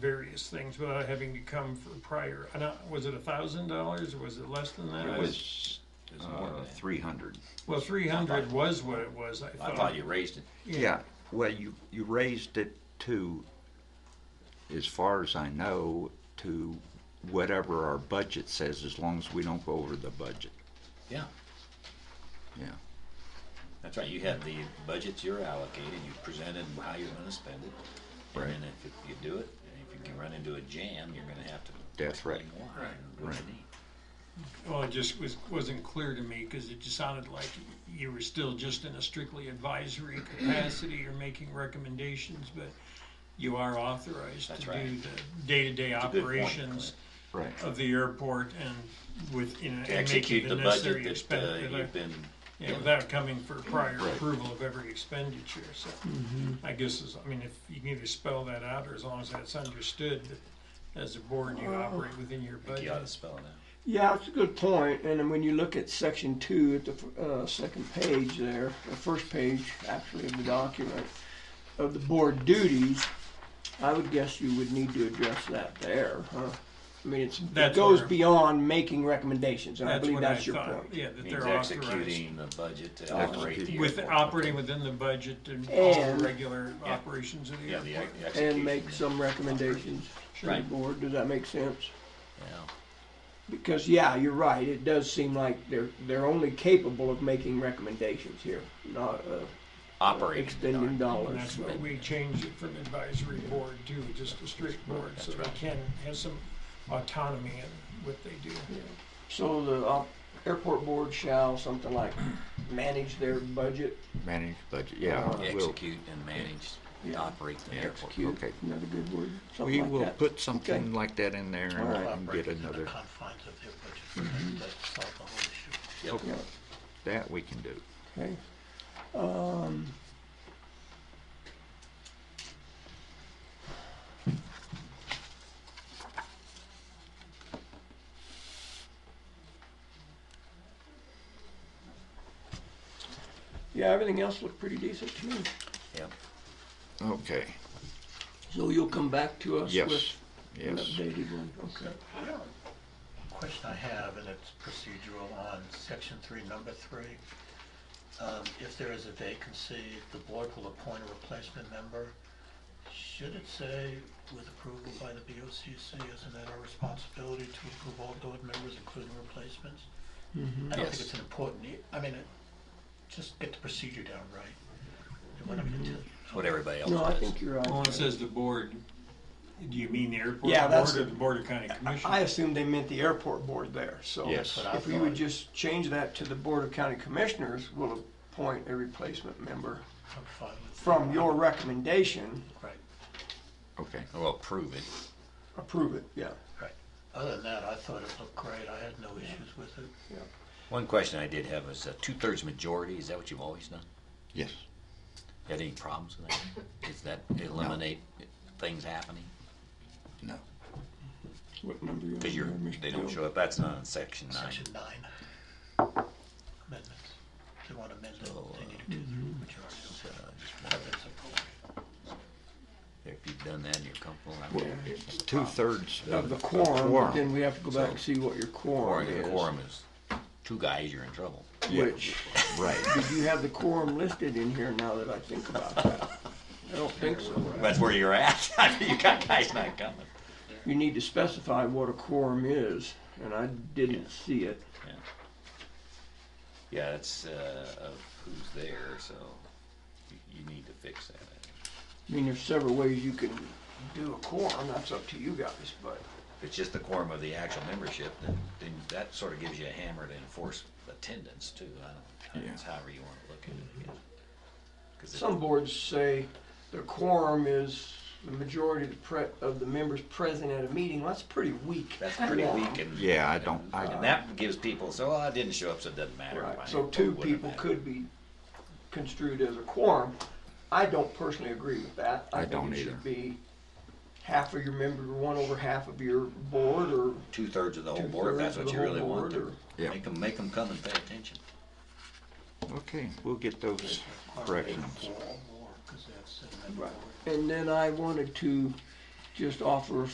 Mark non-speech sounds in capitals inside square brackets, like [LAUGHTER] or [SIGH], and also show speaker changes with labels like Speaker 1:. Speaker 1: various things without having to come for prior, I don't- was it a thousand dollars, was it less than that?
Speaker 2: It
Speaker 1: Was-
Speaker 2: was, uh, three hundred.
Speaker 1: Well, three hundred was what it was, I
Speaker 2: I
Speaker 1: thought.
Speaker 2: thought you raised it.
Speaker 1: Yeah.
Speaker 2: Yeah.
Speaker 3: Well, you, you raised it to, as far as I know, to whatever our budget says, as long as we don't go over the budget,
Speaker 2: Yeah,
Speaker 3: yeah.
Speaker 2: that's right. You had the budgets you're allocated, you presented how you're gonna spend it.
Speaker 3: Right.
Speaker 2: And then if you do it, and if you can run into a jam, you're gonna have to.
Speaker 3: That's right.
Speaker 2: explain why
Speaker 1: Right.
Speaker 2: and what you
Speaker 3: Right.
Speaker 2: need.
Speaker 1: Well, it just was, wasn't clear to me, cause it just sounded like you were still just in a strictly advisory
Speaker 2: [CLEARS THROAT]
Speaker 1: capacity, or making recommendations, but you are authorized to
Speaker 2: That's
Speaker 1: do
Speaker 2: right.
Speaker 1: the day-to-day
Speaker 2: a good point,
Speaker 1: operations
Speaker 3: Right.
Speaker 1: of the airport and with, you know,
Speaker 2: To
Speaker 1: and making
Speaker 2: execute
Speaker 1: the
Speaker 2: the budget
Speaker 1: necessary
Speaker 2: that uh,
Speaker 1: expenditure.
Speaker 2: you've been,
Speaker 1: Yeah, without coming for prior
Speaker 3: Right.
Speaker 1: approval of every expenditure, so
Speaker 2: Mm-hmm.
Speaker 1: I guess, is- I mean, if you can either spell that out, or as long as that's understood, that as a board, you operate within your
Speaker 2: you ought to
Speaker 1: budget.
Speaker 2: spell it out.
Speaker 4: Yeah, it's a good point. And then when you look at section two at the f- uh, second page there, the first page actually of the document, of the board duties, I would guess you would need to address that there, huh? I mean, it's, it
Speaker 1: That's
Speaker 4: goes
Speaker 1: where-
Speaker 4: beyond making recommendations, and I
Speaker 1: That's
Speaker 4: believe
Speaker 1: what I
Speaker 4: that's your
Speaker 1: thought,
Speaker 4: point.
Speaker 1: yeah, that
Speaker 2: Means
Speaker 1: they're authorized.
Speaker 2: executing the budget to operate the
Speaker 1: With,
Speaker 2: airport.
Speaker 1: operating within the budget and all
Speaker 4: And-
Speaker 1: the regular
Speaker 2: Yeah.
Speaker 1: operations of the
Speaker 2: Yeah, the
Speaker 1: airport.
Speaker 2: ex- the execution.
Speaker 4: And make some recommendations to the
Speaker 2: Right.
Speaker 4: board. Does that make sense?
Speaker 2: Yeah.
Speaker 4: Because, yeah, you're right. It does seem like they're, they're only capable of making recommendations here, not, uh,
Speaker 2: Operating.
Speaker 4: extending
Speaker 1: And
Speaker 4: dollars.
Speaker 1: that's why we changed it from advisory board to just a strict board, so they
Speaker 2: right.
Speaker 1: can have some autonomy in what they do.
Speaker 4: So the uh, airport board shall something like manage their budget.
Speaker 3: Manage budget, yeah.
Speaker 4: Uh,
Speaker 3: we'll-
Speaker 2: Execute and manage, and
Speaker 4: Yeah.
Speaker 2: operate the airport.
Speaker 3: Execute. Okay.
Speaker 4: Another good word. Something
Speaker 3: We
Speaker 4: like
Speaker 3: will
Speaker 4: that.
Speaker 3: put something like that in there
Speaker 4: All right.
Speaker 3: and- and get another,
Speaker 5: Confines of their budget, that- that solve the whole issue.
Speaker 2: Yep.
Speaker 4: Yeah.
Speaker 3: that we can do.
Speaker 4: Okay. Um, yeah, everything else looked pretty decent to me.
Speaker 2: Yep.
Speaker 3: Okay,
Speaker 4: So you'll come back to us with
Speaker 3: yes,
Speaker 4: an
Speaker 3: yes.
Speaker 4: updated one. Okay.
Speaker 5: Question I have, and it's procedural on section three, number three. Um, If there is a vacancy, the board will appoint a replacement member. Should it say with approval by the BOCC, isn't that our responsibility to approve all board members, including replacements? I don't
Speaker 2: Yes.
Speaker 5: think it's an important, e, I mean, it- just get the procedure down right. And we're not gonna tell you.
Speaker 2: That's what everybody else
Speaker 4: No, I
Speaker 2: does.
Speaker 4: think you're right.
Speaker 1: Well, when it says the board, do you mean the airport
Speaker 4: Yeah,
Speaker 1: board
Speaker 4: that's-
Speaker 1: or the board of county
Speaker 4: I
Speaker 1: commissioners?
Speaker 4: assumed they meant the airport board there, so.
Speaker 3: Yes.
Speaker 5: That's what I
Speaker 4: If we would
Speaker 5: thought.
Speaker 4: just change that to the Board of County Commissioners will appoint a replacement member
Speaker 5: I'm fine with that.
Speaker 4: from your recommendation,
Speaker 5: Right.
Speaker 3: Okay,
Speaker 2: Well, prove it.
Speaker 4: approve it, yeah.
Speaker 5: Right. Other than that, I thought it looked great. I had no issues with it.
Speaker 2: One question I did have was uh, two-thirds majority, is that what you've always done?
Speaker 3: yes.
Speaker 2: Had any problems with that? Does that eliminate things happening?
Speaker 4: Uh,
Speaker 3: No.
Speaker 4: What number you
Speaker 2: Because you're, they don't show up, that's not in section nine.
Speaker 5: Section nine. Amendments. If they want amended,
Speaker 2: So,
Speaker 5: they need to do the majority of it. If it's appropriate.
Speaker 2: If you've done that and you're comfortable, I would.
Speaker 3: It's two-thirds
Speaker 4: Of the
Speaker 3: quorum,
Speaker 4: quorum, but then we have to go back and see what your
Speaker 2: Or
Speaker 4: quorum
Speaker 2: your
Speaker 4: is.
Speaker 2: quorum is two guys, you're in trouble.
Speaker 4: Which,
Speaker 3: Right,
Speaker 4: did you have the quorum listed in here now that I think about that? I don't think so.
Speaker 2: That's where you're at. [LAUGHS] You got guys not coming.
Speaker 4: You need to specify what a quorum is, and I didn't see it.
Speaker 2: Yeah, that's, uh, of who's there, so you, you need to fix that.
Speaker 4: I mean, there's several ways you can do a quorum, that's up to you guys, but.
Speaker 2: If it's just the quorum of the actual membership, then, then that sort of gives you a hammer to enforce attendance too. I don't,
Speaker 3: Yeah.
Speaker 2: it's however you want to look at it, I guess. 'Cause it-
Speaker 4: Some boards say the quorum is the majority of the pre, of the members present at a meeting, that's pretty weak.
Speaker 2: That's pretty weak and.
Speaker 3: Yeah, I don't- I-
Speaker 2: And that gives people, so "Oh, I didn't show up, so it doesn't matter.
Speaker 4: Right,
Speaker 2: Fine.
Speaker 4: so
Speaker 2: It
Speaker 4: two
Speaker 2: wouldn't
Speaker 4: people
Speaker 2: matter.
Speaker 4: could be construed as a quorum. I don't personally agree with that.
Speaker 3: I don't either.
Speaker 4: think it should be half of your member, one over half of your board, or,
Speaker 2: Two-thirds of the whole Oh, board, if
Speaker 4: Two-thirds
Speaker 2: that's
Speaker 4: of
Speaker 2: what
Speaker 4: the
Speaker 2: you really
Speaker 4: whole
Speaker 2: want
Speaker 4: board,
Speaker 2: to.
Speaker 3: or- Yeah.
Speaker 2: Make them, come and pay attention.
Speaker 3: okay, we'll get those corrections.
Speaker 5: Or more, 'cause that's in that
Speaker 4: Right.
Speaker 5: board.
Speaker 4: and then I wanted to just offer